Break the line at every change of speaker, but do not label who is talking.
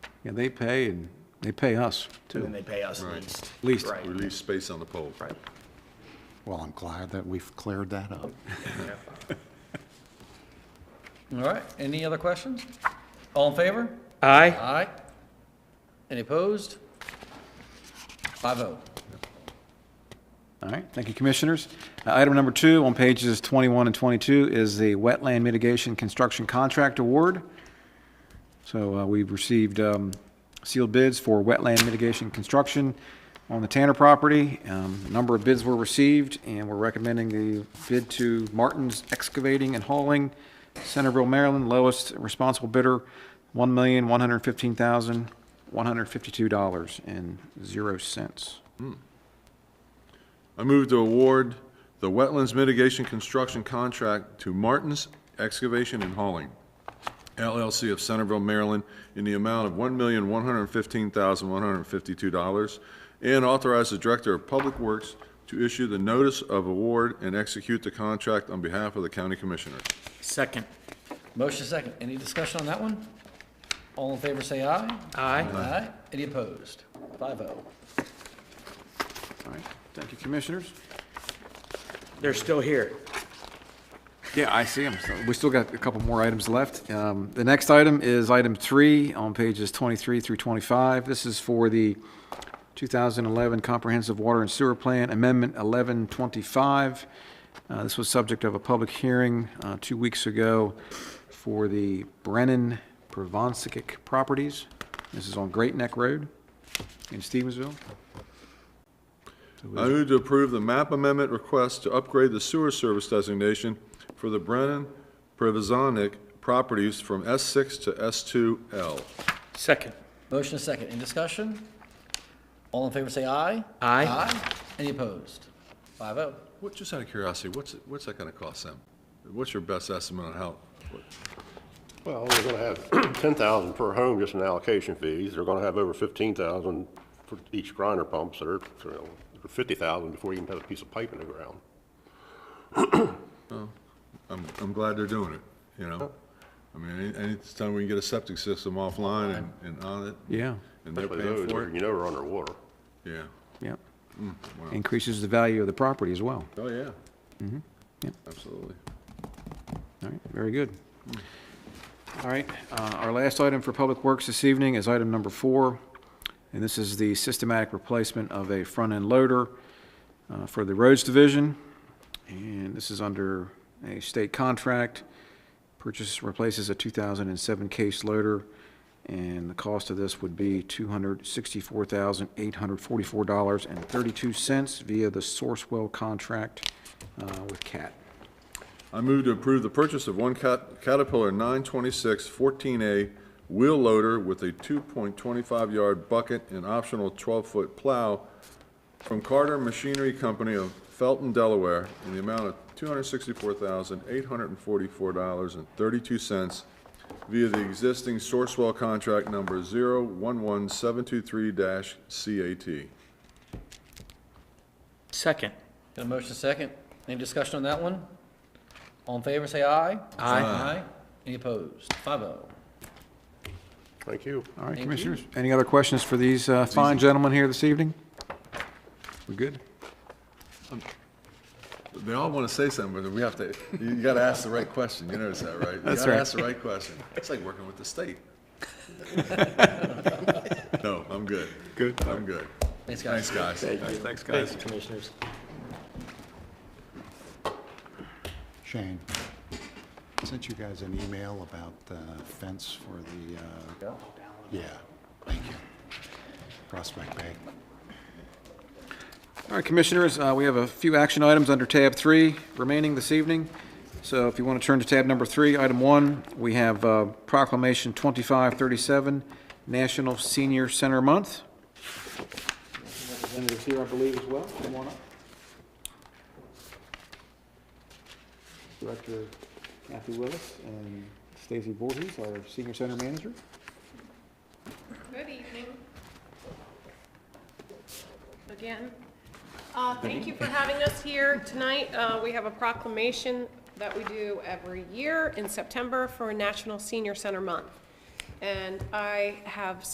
Yeah, they pay and they pay us
and
too.
then they pay us
Right.
least.
Leased.
Right,
Release space on the pole.
right.
Well, I'm glad that we've cleared that up.
All right, any other questions? All in favor?
Aye.
Aye. Any opposed? Five oh.
All right, thank you, Commissioners. Uh, Item number two on pages 21 and 22 is the wetland mitigation construction contract award. So uh, we've received um, sealed bids for wetland mitigation construction on the Tanner property. Um, A number of bids were received, and we're recommending the bid to Martin's Excavating and Hauling, Centerville, Maryland, lowest responsible bidder, $1,115,152.00.
I move to award the Wetlands Mitigation Construction Contract to Martin's Excavation and Hauling LLC of Centerville, Maryland, in the amount of $1,115,152, and authorize the Director of Public Works to issue the notice of award and execute the contract on behalf of the County Commissioners.
Second.
Motion second. Any discussion on that one? All in favor, say aye.
Aye.
Aye. Any opposed? Five oh.
All right, thank you, Commissioners.
They're still here.
Yeah, I see them. We still got a couple more items left. Um, The next item is item three on pages 23 through 25. This is for the 2011 Comprehensive Water and Sewer Plan Amendment 1125. Uh, This was subject of a public hearing uh, two weeks ago for the Brennan Provonsikic properties. This is on Great Neck Road in Stevensville.
I move to approve the map amendment request to upgrade the sewer service designation for the Brennan Privazanic properties from S6 to S2L.
Second.
Motion second. Any discussion? All in favor, say aye.
Aye.
Aye. Any opposed? Five oh.
What, just out of curiosity, what's, what's that gonna cost them? What's your best estimate on how, what-
Well, they're gonna have ten thousand per home just in allocation fees. They're gonna have over fifteen thousand for each grinder pump, so they're, you know, fifty thousand before you even have a piece of pipe in the ground.
I'm, I'm glad they're doing it, you know? I mean, any, anytime we can get a septic system offline and, and on it,
Yeah,
and they're
Especially those
paying for
where
it,
you know are underwater.
yeah.
yeah. Increases the value of the property as well.
Oh, yeah.
Yep.
Absolutely.
All right, very good. All right, uh, our last item for Public Works this evening is item number four, and this is the systematic replacement of a front-end loader uh, for the Roads Division, and this is under a state contract. Purchase replaces a 2007 case loader, and the cost of this would be $264,844.32 via the Sourcewell contract uh, with CAT.
I move to approve the purchase of one Cat- Caterpillar 926 14A wheel loader with a 2.25 yard bucket and optional 12 foot plow from Carter Machinery Company of Felton, Delaware, in the amount of $264,844.32 via the existing Sourcewell contract number 011723-CAT.
Second.
Got a motion second. Any discussion on that one? All in favor, say aye.
Aye.
Aye. Any opposed? Five oh.
Thank you.
All right,
Thank
Commissioners, any other questions for these uh, fine gentlemen here this evening? We're good?
They all want to say something, but we have to, you got to ask the right question. You notice that, right?
That's
You got
right.
to ask the right question. It's like working with the state. No, I'm good. Good? I'm good.
Thanks, guys.
Thanks, guys.
Thanks, guys. Thank you, Commissioners.
Shane, I sent you guys an email about the fence for the, uh, yeah, thank you. Prospect Bay.
All right, Commissioners, uh, we have a few action items under tab three remaining this evening. So if you want to turn to tab number three, item one, we have uh, proclamation 2537, National Senior Center Month. Representatives here, I believe, as well. Come on up. Director Kathy Willis and Stacy Voorhees, our Senior Center Manager.
Good evening. Again, Uh, thank you for having us here tonight. Uh, We have a proclamation that we do every year in September for National Senior Center Month. And I have